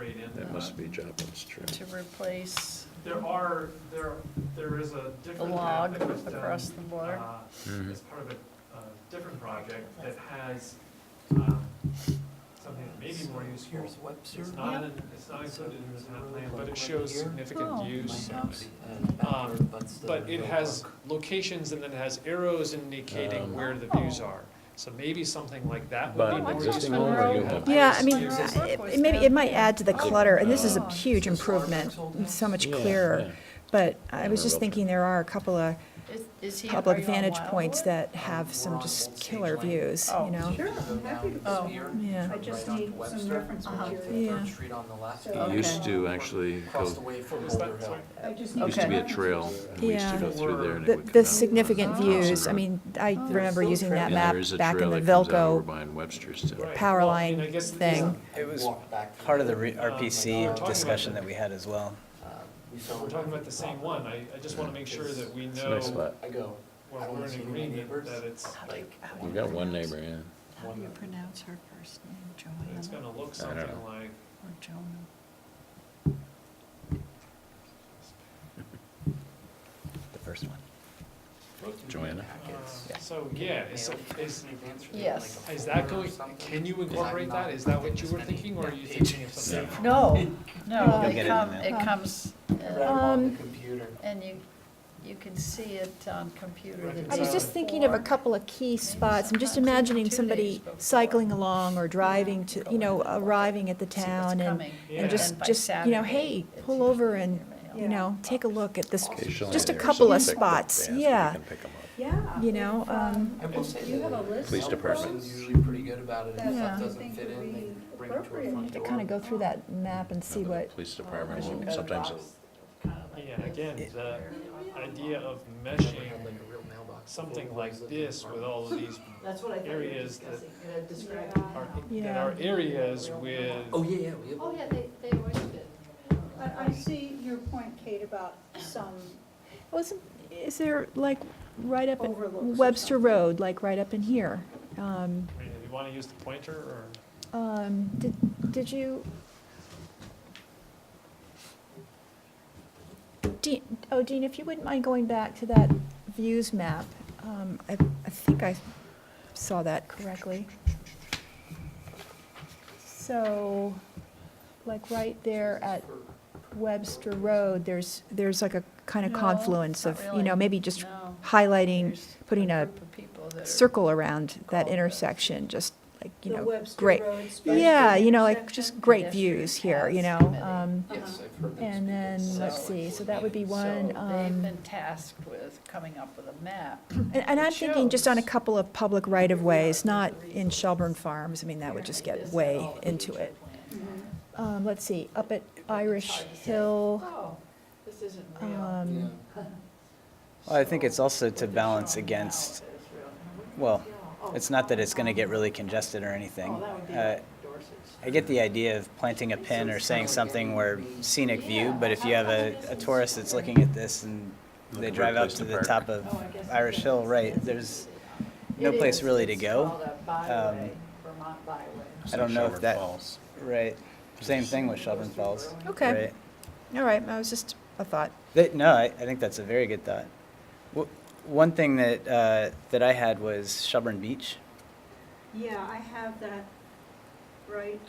incorporate in That must that. be Joplin's tree. to replace, There are, there, there is a different map log that was done. across the border. uh, Mhm. As part of a, a different project that has, uh, um, something that may be more useful. Here's Webster. It's not, Yep. in- it's not So included in the there's a town road plan, like but it right shows here. Oh. significant use. My uh, house and backyard Um, butts the But it road has park. locations and then it has arrows indicating Um, where the views Oh. are. So maybe something like that would But be an more existing useful. home or you have- Yeah, I mean, Like it- Roseburg was it maybe, it down might there. add to the clutter, and this is Oh. a huge improvement, It's so much clearer. But I was just thinking there are a couple of is, is he, are public you on vantage points Wildwood? that have some just killer We're on Old Sage Lane. views, Oh, you know? Sure, You go I'm happy down to this Oh. pier, Yeah. turn I right just onto need some Webster, reference turn to material. Third Yeah. Street on the left. It used to actually Across go- the way from Was that- Boulder Hill. sorry. I just Used to be a need- trail, and we used to go through there and it The, would come the down. significant Oh. views, I mean, I remember still using that And map there is a back in trail the that comes out over Velco. by in Webster's too. Right. power Well, I mean, line I guess the- thing. It was Walk back through Part of the it. re- Uh, we're talking RPC about discussion that. that we had as well. Um, we saw We're talking about the same one. I, I just want to make sure that we It's a nice know lot. I go. I when wanna we're see in my agreement neighbors. that it's, Like, We got one neighbor, yeah. How do you pronounce her first name, it's Joanna gonna look I don't something know. like, or Jonah? The first one. Joanna? uh, so yeah, is, is, Yes. is that going, can you incorporate that? Is that what you were thinking or are you thinking of something? Yeah. No, no, You'll get it it in come, there. it comes, uh, on Um, the computer. and you, you can see it on computer. the I was day just thinking of a before. couple of key spots, I'm just imagining somebody cycling along or driving to, you know, arriving at the See what's town and coming. Yeah. and just, And by just, you know, Saturday, hey, it's pull over usually and, in your you Yeah. know, take a look at this, Occasionally just a there's couple of some pickup spots, vans where you yeah. can pick 'em up. Yeah. You know, if, um, I will say You that have a the list Police of department. person's those? usually pretty good about it, if Yeah. that I doesn't think fit would in, they be bring it to a appropriate. front To door. kind of go through that map and see The what, Police what you department, got. sometimes Box. Yeah, again, the idea of Never meshing had, like, a real mailbox. something Full of like those this with all of these That's what I thought you were areas that discussing. It had described. are, that Yeah. are areas with. Oh, yeah, yeah, we have. Oh, yeah, they, they always did. But I see your point, Kate, about some, wasn't, is there like right up Overlooks or in Webster something. Road, like right up in here? Um, I mean, if you want to use the pointer or? um, did, did you? Dean, oh, Dean, if you wouldn't mind going back to that views map, um, I, I think I saw that correctly. So, like right there at Webster Road, there's, there's like a kind of No, confluence not of, you know, really. maybe just No. highlighting, There's putting a group of people that are- circle around that called the- intersection, just like, you the know, Webster great. Road special Yeah, you know, like, intersection. just great Pedestrian views here, you know? paths committee. um, Yes, I've heard those And then, people let's say see, it's so that would be So one. They've um, been tasked with coming up with a map. And and I'm It thinking just on a shows. couple of public right-of-ways, not in Shelburne Farms, I mean, that would just This get had way all the into future it. plans. Mhm. Um, Let's see, up at Irish Hard to say, Hill, Oh, this isn't real. um, Yeah. Well, I think it's also What to they're balance showing now against, is real. well, Oh, it's not that it's going to get really congested or anything. Oh, that would be Uh, like Dorset's. I get the idea of planting a pin or saying something where scenic view, but if you have a, a tourist that's looking at this and they Looking for a drive up place to to the park. top of Oh, I guess Irish it Hill, is. right, there's no It place is. really to It's go. Um, called a byway, Vermont byway. I don't know if Shelburne that- Falls. Right, same thing with Shelburne Falls. okay, right? all right, I was just, a thought. That, no, I, I think that's a very good thought. W- one thing that uh, that I had was Shelburne Beach. Yeah, I have that right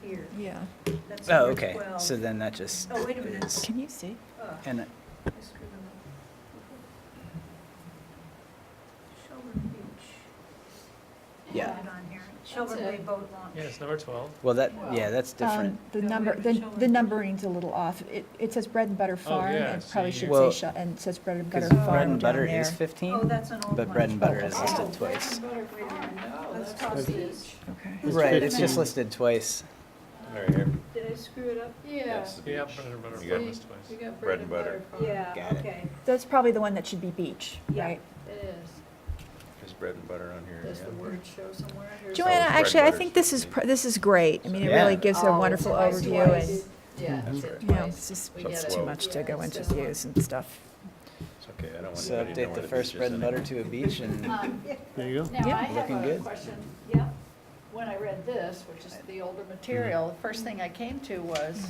here. Yeah, That's Oh, number okay. 12. So then that just Oh, wait a minute. is- can you see? Oh, and I screwed them up. Shelburne Beach. Yeah. Put it on here. Shelburne Bay Boat Launch. Yeah, it's number twelve. well, that yeah, that's different. Um, The No, number, we the, haven't shown the it. numbering's a little off. It, it says bread and butter farm, yeah, and so probably you- should Well, say, Shel- and it says bread and butter Because farm bread and down butter is there. 15, Oh, that's an old one. but bread and butter is Oh, listed twice. Wait a minute. Oh, Let's that's cross the these. Okay. Right, it's just 15. listed twice. Right here. Did I screw it up? Yeah, That's the Yeah, beach. better, better, You got- breakfast we twice. got Bread and butter. farm. Yeah, Got it. okay. That's probably the one that should be beach, Yeah. right? It is. There's bread and butter on here. Does the yeah. word show somewhere? Here's- Joanna, bread actually, I butter. think this is, pr- this is great. I mean, it really Yeah. gives a Oh, wonderful it's twice, overview twice. and, yeah, That's it's right. at you know, twice. it's just We it's get too it. much to Yeah, go it's into just one. views and stuff. It's okay, I don't want So anybody to know update where the the beach first is bread and anymore. Uh, butter to a beach and Um, Yeah. There you go. Now, I Yeah. have Looking a good. question. Yeah. When when I read this, which is the older material, the first thing I came to was,